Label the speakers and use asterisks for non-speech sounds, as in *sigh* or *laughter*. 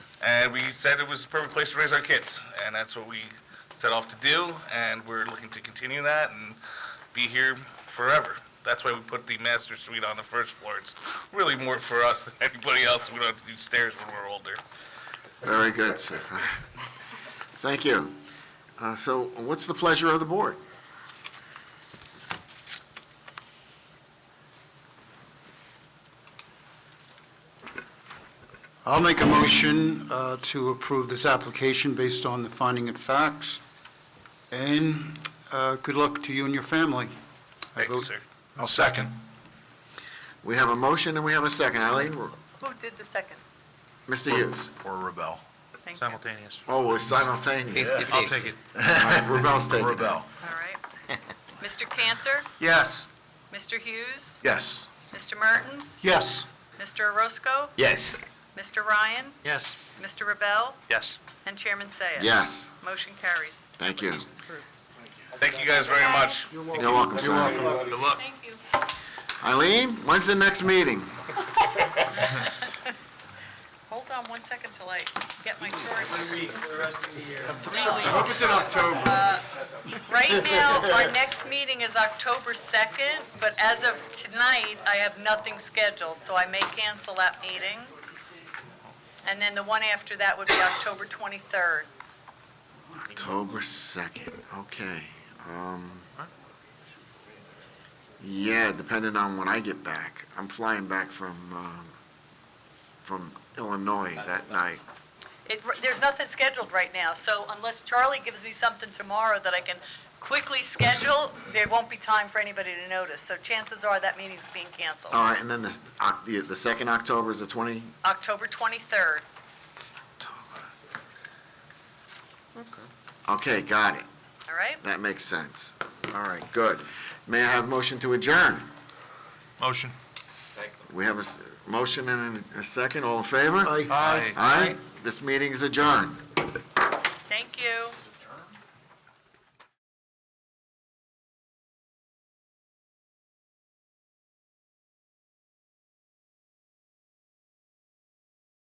Speaker 1: And we said it was the perfect place to raise our kids, and that's what we set off to do, and we're looking to continue that and be here forever. That's why we put the master suite on the first floor. It's really more for us than anybody else. We don't have to do stairs when we're older.
Speaker 2: Very good, sir. Thank you. Uh, So what's the pleasure of the board?
Speaker 3: I'll make a motion uh, to approve this application based on the finding of facts. And uh, good luck to you and your family. I
Speaker 1: Thank you,
Speaker 3: vote-
Speaker 1: sir.
Speaker 4: I'll second.
Speaker 2: We have a motion and we have a second. Ally,
Speaker 5: Who did the second?
Speaker 2: Mr. Hughes?
Speaker 4: Or rebel.
Speaker 5: Thank you.
Speaker 4: Simultaneous.
Speaker 2: Oh, we're simultaneous.
Speaker 4: I'll take it.
Speaker 2: Rebel's taking it.
Speaker 4: Rebel.
Speaker 5: All right.
Speaker 4: *laughs*
Speaker 5: Mr. Cantor,
Speaker 3: Yes.
Speaker 5: Mr. Hughes,
Speaker 4: Yes.
Speaker 5: Mr. Martins,
Speaker 3: Yes.
Speaker 5: Mr. Orozco,
Speaker 4: Yes.
Speaker 5: Mr. Ryan,
Speaker 4: Yes.
Speaker 5: Mr. Rebel,
Speaker 4: Yes.
Speaker 5: and Chairman Sayah.
Speaker 2: Yes,
Speaker 5: Motion carries.
Speaker 2: thank you.
Speaker 5: Application's approved.
Speaker 1: Thank you guys very much.
Speaker 2: You're welcome, sir.
Speaker 1: Good luck.
Speaker 5: Thank you.
Speaker 2: Eileen, when's the next meeting?
Speaker 5: Hold on one second till I get my choice.
Speaker 6: for the rest of the year.
Speaker 3: Hope it's in October.
Speaker 5: Right now, our next meeting is October 2nd, but as of tonight, I have nothing scheduled, so I may cancel that meeting. And then the one after that would be October 23rd.
Speaker 2: October 2nd, okay. Um, Yeah, depending on when I get back. I'm flying back from, um, from Illinois that night.
Speaker 5: It, there's nothing scheduled right now, so unless Charlie gives me something tomorrow that I can quickly schedule, there won't be time for anybody to notice. So chances are that meeting's being canceled.
Speaker 2: All right, and then the, Oc- the the 2nd October is the 20?
Speaker 5: October 23rd.
Speaker 2: Okay, got it.
Speaker 5: All right?
Speaker 2: That makes sense. All right, good. May I have motion to adjourn?
Speaker 4: Motion.
Speaker 2: We have a s- motion and a second, all in favor?
Speaker 3: Aye.
Speaker 2: Aye. This meeting is adjourned.